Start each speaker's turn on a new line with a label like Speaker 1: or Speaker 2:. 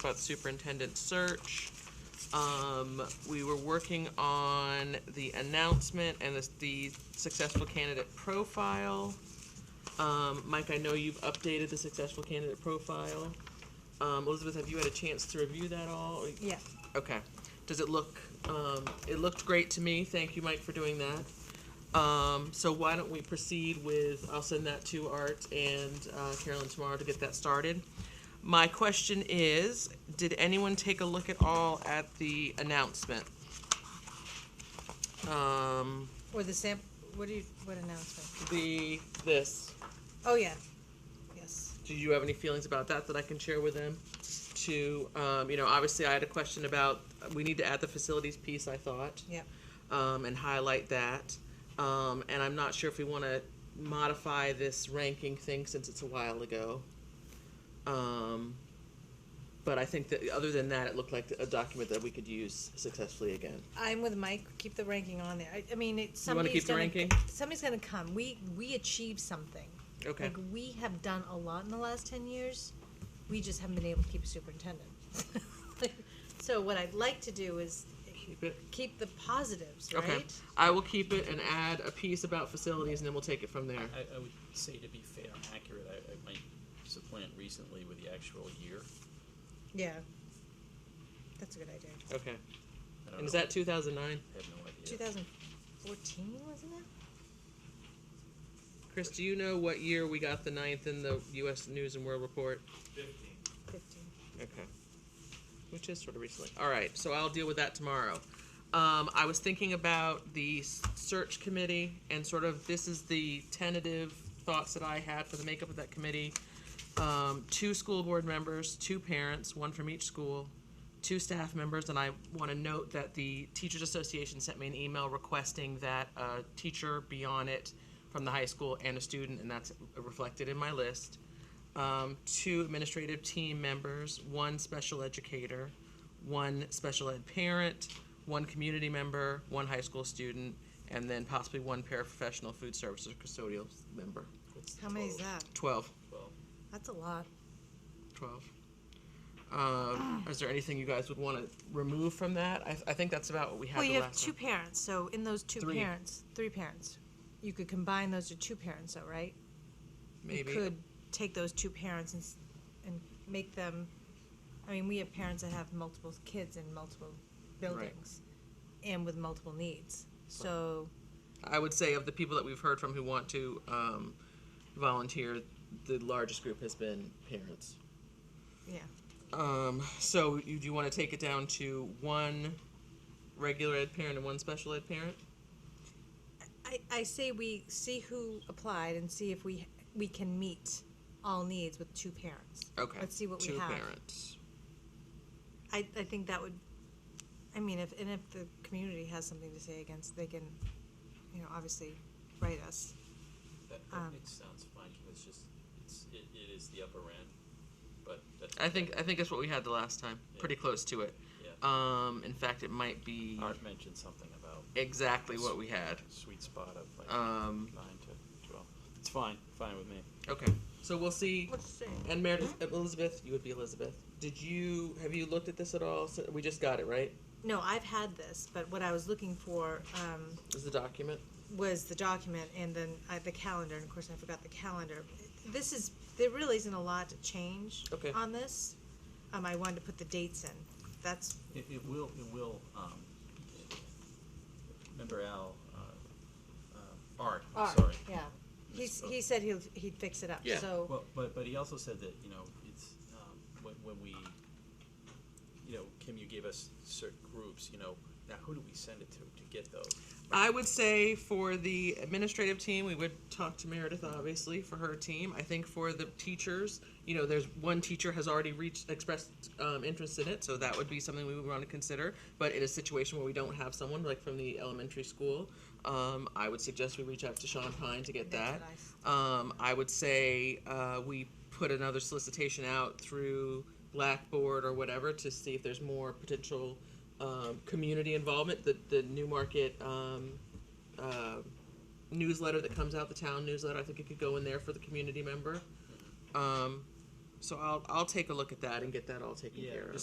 Speaker 1: about the superintendent search. Um, we were working on the announcement and the, the successful candidate profile. Um, Mike, I know you've updated the successful candidate profile. Um, Elizabeth, have you had a chance to review that all? Or-
Speaker 2: Yeah.
Speaker 1: Okay. Does it look, um, it looked great to me. Thank you, Mike, for doing that. Um, so why don't we proceed with, I'll send that to Art and uh, Carolyn tomorrow to get that started. My question is, did anyone take a look at all at the announcement? Um,
Speaker 2: Or the samp, what do you, what announcement?
Speaker 1: the, this,
Speaker 2: Oh, yeah, yes.
Speaker 1: do you have any feelings about that that I can share with them? To, um, you know, obviously I had a question about, we need to add the facilities piece, I thought.
Speaker 2: Yep.
Speaker 1: um, and highlight that. Um, and I'm not sure if we want to modify this ranking thing since it's a while ago. Um, but I think that other than that, it looked like a document that we could use successfully again.
Speaker 2: I'm with Mike, keep the ranking on there. I, I mean, it's,
Speaker 1: You wanna
Speaker 2: somebody's
Speaker 1: keep the
Speaker 2: gonna,
Speaker 1: ranking?
Speaker 2: somebody's gonna come. We, we achieved something.
Speaker 1: Okay.
Speaker 2: Like, we have done a lot in the last ten years, we just haven't been able to keep a superintendent. So what I'd like to do is
Speaker 1: Keep it.
Speaker 2: keep the positives,
Speaker 1: Okay.
Speaker 2: right?
Speaker 1: I will keep it and add a piece about facilities, and then we'll take it from there.
Speaker 3: I, I would say to be fair and accurate, I, I might supplant recently with the actual year.
Speaker 2: Yeah. That's a good idea.
Speaker 1: Okay.
Speaker 3: I don't
Speaker 1: And is
Speaker 3: know.
Speaker 1: that 2009?
Speaker 3: I have no idea.
Speaker 2: Two thousand fourteen, wasn't it?
Speaker 1: Chris, do you know what year we got the ninth in the U.S. News and World Report?
Speaker 2: Fifteen.
Speaker 1: Okay. Which is sort of recently. All right, so I'll deal with that tomorrow. Um, I was thinking about the s- search committee and sort of this is the tentative thoughts that I had for the makeup of that committee. Um, two school board members, two parents, one from each school, two staff members, and I want to note that the Teachers Association sent me an email requesting that a teacher be on it from the high school and a student, and that's reflected in my list um, two administrative team members, one special educator, one special ed parent, one community member, one high school student, and then possibly one paraprofessional food services custodial member.
Speaker 3: What's the
Speaker 2: How many is
Speaker 3: total?
Speaker 2: that?
Speaker 1: 12.
Speaker 3: Well,
Speaker 2: That's a lot.
Speaker 1: 12. Um, is there anything you guys would want to remove from that? I, I think that's about what we had
Speaker 2: Well,
Speaker 1: the
Speaker 2: you have
Speaker 1: last
Speaker 2: two
Speaker 1: time.
Speaker 2: parents, so in those two
Speaker 1: Three.
Speaker 2: parents, three parents, you could combine those to two parents, though, right?
Speaker 1: Maybe.
Speaker 2: You could take those two parents and, s- and make them, I mean, we have parents that have multiple kids in multiple buildings and with multiple needs. So,
Speaker 1: I would say of the people that we've heard from who want to um, volunteer, the largest group has been parents.
Speaker 2: yeah,
Speaker 1: Um, so you, do you want to take it down to one regular ed parent and one special ed parent?
Speaker 2: I, I say we see who applied and see if we, we can meet all needs with two parents.
Speaker 1: Okay.
Speaker 2: Let's see what we
Speaker 1: Two
Speaker 2: have.
Speaker 1: parents.
Speaker 2: I, I think that would, I mean, if, and if the community has something to say against, they can, you know, obviously write us.
Speaker 3: that,
Speaker 2: Um,
Speaker 3: that, it sounds fine, it's just, it's, it, it is the upper end, but that's.
Speaker 1: I think I think that's what we had the last time. Pretty close to it.
Speaker 3: Yeah.
Speaker 1: Um, in fact, it might be
Speaker 3: Art mentioned something about
Speaker 1: exactly what we had.
Speaker 3: sweet spot of like
Speaker 1: Um,
Speaker 3: nine to twelve. It's fine, fine with me.
Speaker 1: okay. So we'll see.
Speaker 2: Let's see.
Speaker 1: And Meredith,
Speaker 2: Mm-hmm.
Speaker 1: Elizabeth, you would be Elizabeth. Did you have you looked at this at all? So we just got it right.
Speaker 2: No, I've had this, but what I was looking for um,
Speaker 1: Is the document?
Speaker 2: was the document and then I, the calendar, and of course I forgot the calendar. This is, there really isn't a lot to change
Speaker 1: Okay.
Speaker 2: on this. Um, I wanted to put the dates in. That's,
Speaker 3: It, it will, it will, um, remember Al, uh, uh, Art, I'm sorry.
Speaker 2: yeah. He's, he said he'll, he'd fix it up,
Speaker 1: Yeah.
Speaker 2: so.
Speaker 3: Well, but, but he also said that, you know, it's, um, when, when we, you know, Kim, you gave us certain groups, you know, now who do we send it to, to get those?
Speaker 1: I would say for the administrative team, we would talk to Meredith, obviously, for her team. I think for the teachers, you know, there's one teacher has already reached, expressed um, interest in it, so that would be something we would want to consider. But in a situation where we don't have someone, like from the elementary school, um, I would suggest we reach out to Sean Pine to get
Speaker 2: That's
Speaker 1: that.
Speaker 2: what I s-
Speaker 1: Um, I would say uh, we put another solicitation out through Blackboard or whatever to see if there's more potential um, community involvement. The the Newmarket um, uh, newsletter that comes out, the town newsletter, I think it could go in there for the community member. Um, So I'll, I'll take a look at that and get that all taken
Speaker 3: Yeah,
Speaker 1: care of.